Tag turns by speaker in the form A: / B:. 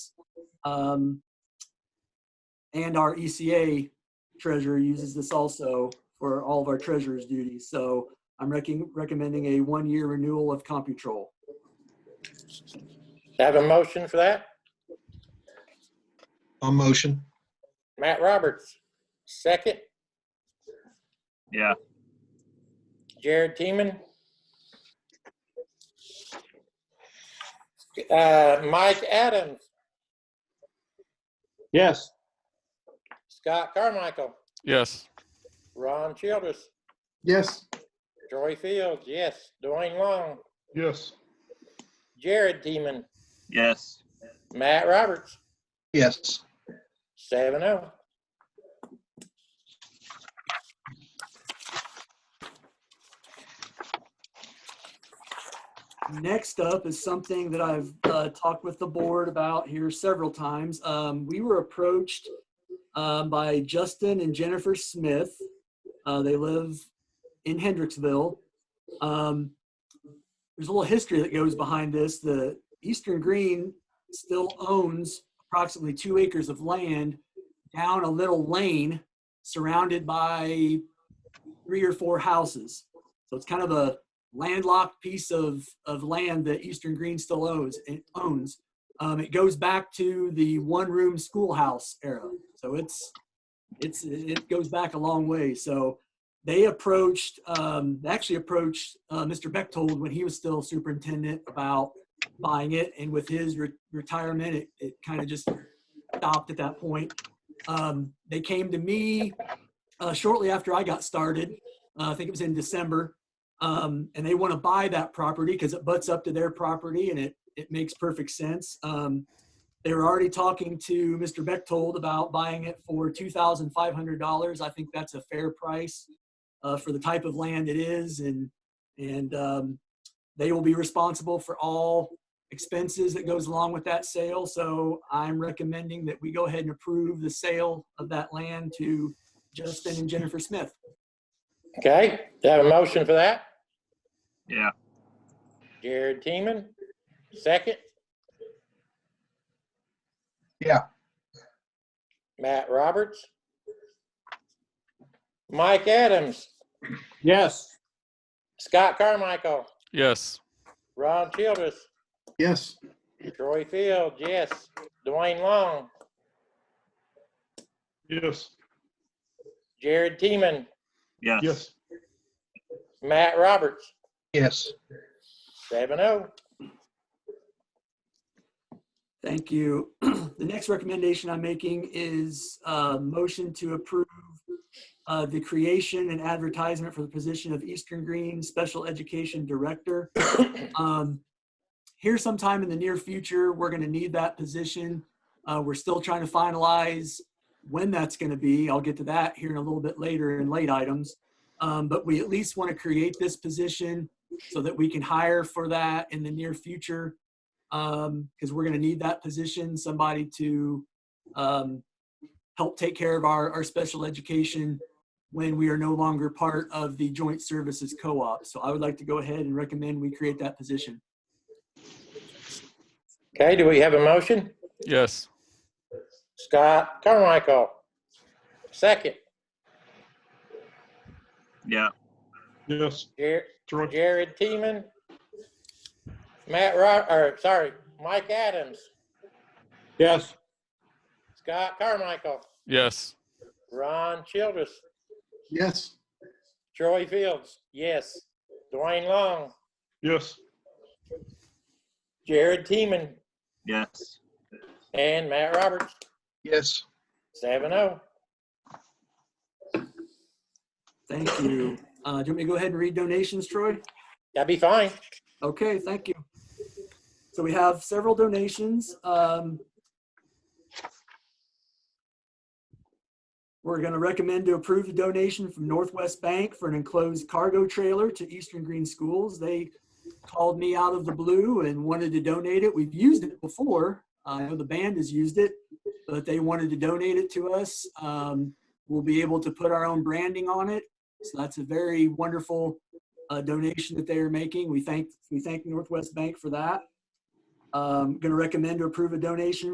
A: Um, and our ECA treasurer uses this also for all of our treasurer's duties. So I'm recom- recommending a one-year renewal of CompuTrol.
B: Have a motion for that?
C: I'll motion.
B: Matt Roberts, second.
D: Yeah.
B: Jared Teeman. Uh, Mike Adams,
C: Yes.
B: Scott Carmichael,
E: Yes.
B: Ron Childress,
C: Yes.
B: Troy Fields, yes, Dwayne Long,
C: Yes.
B: Jared Teeman,
D: Yes.
B: Matt Roberts,
C: Yes.
B: seven oh.
A: Next up is something that I've uh, talked with the board about here several times. Um, we were approached um, by Justin and Jennifer Smith. Uh, they live in Hendricksville. Um, there's a little history that goes behind this. The Eastern Green still owns approximately two acres of land down a little lane surrounded by three or four houses. So it's kind of a landlocked piece of, of land that Eastern Green still owns. It owns. Um, it goes back to the one-room schoolhouse era, so it's it's it goes back a long way. So they approached, um, they actually approached uh, Mr. Bechtold when he was still superintendent about buying it, and with his re- retirement, it, it kind of just stopped at that point. Um, they came to me uh, shortly after I got started. Uh, I think it was in December, um, and they want to buy that property because it butts up to their property and it, it makes perfect sense. Um, they were already talking to Mr. Bechtold about buying it for $2,500. I think that's a fair price uh, for the type of land it is. And, and um, they will be responsible for all expenses that goes along with that sale. So I'm recommending that we go ahead and approve the sale of that land to Justin and Jennifer Smith.
B: Okay, have a motion for that?
D: Yeah.
B: Jared Teeman, second.
C: Yeah.
B: Matt Roberts. Mike Adams,
C: Yes.
B: Scott Carmichael,
E: Yes.
B: Ron Childress,
C: Yes.
B: Troy Field, yes, Dwayne Long,
C: Yes.
B: Jared Teeman,
D: Yes.
C: Yes.
B: Matt Roberts,
C: Yes.
B: seven oh.
A: Thank you. The next recommendation I'm making is a motion to approve uh, the creation and advertisement for the position of Eastern Green Special Education Director. Um, Here sometime in the near future, we're going to need that position. Uh, We're still trying to finalize when that's going to be. I'll get to that here in a little bit later in late items. Um, But we at least want to create this position so that we can hire for that in the near future um, because we're going to need that position, somebody to um, help take care of our, our special education when we are no longer part of the joint services co-op. So I would like to go ahead and recommend we create that position.
B: Okay, do we have a motion?
E: Yes.
B: Scott Carmichael, second.
D: Yeah.
C: Yes.
B: Jared,
C: Troy.
B: Jared Teeman, Matt Ro, or sorry, Mike Adams,
C: Yes.
B: Scott Carmichael,
E: Yes.
B: Ron Childress,
C: Yes.
B: Troy Fields, yes, Dwayne Long,
C: Yes.
B: Jared Teeman,
D: Yes.
B: and Matt Roberts,
C: Yes.
B: seven oh.
A: Thank you. Uh, do you want me to go ahead and read donations, Troy?
B: That'd be fine.
A: Okay, thank you. So we have several donations. Um, We're going to recommend to approve the donation from Northwest Bank for an enclosed cargo trailer to Eastern Green Schools. They called me out of the blue and wanted to donate it. We've used it before. I know the band has used it, but they wanted to donate it to us. Um, We'll be able to put our own branding on it. So that's a very wonderful uh, donation that they are making. We thank, we thank Northwest Bank for that. Um, Going to recommend to approve a donation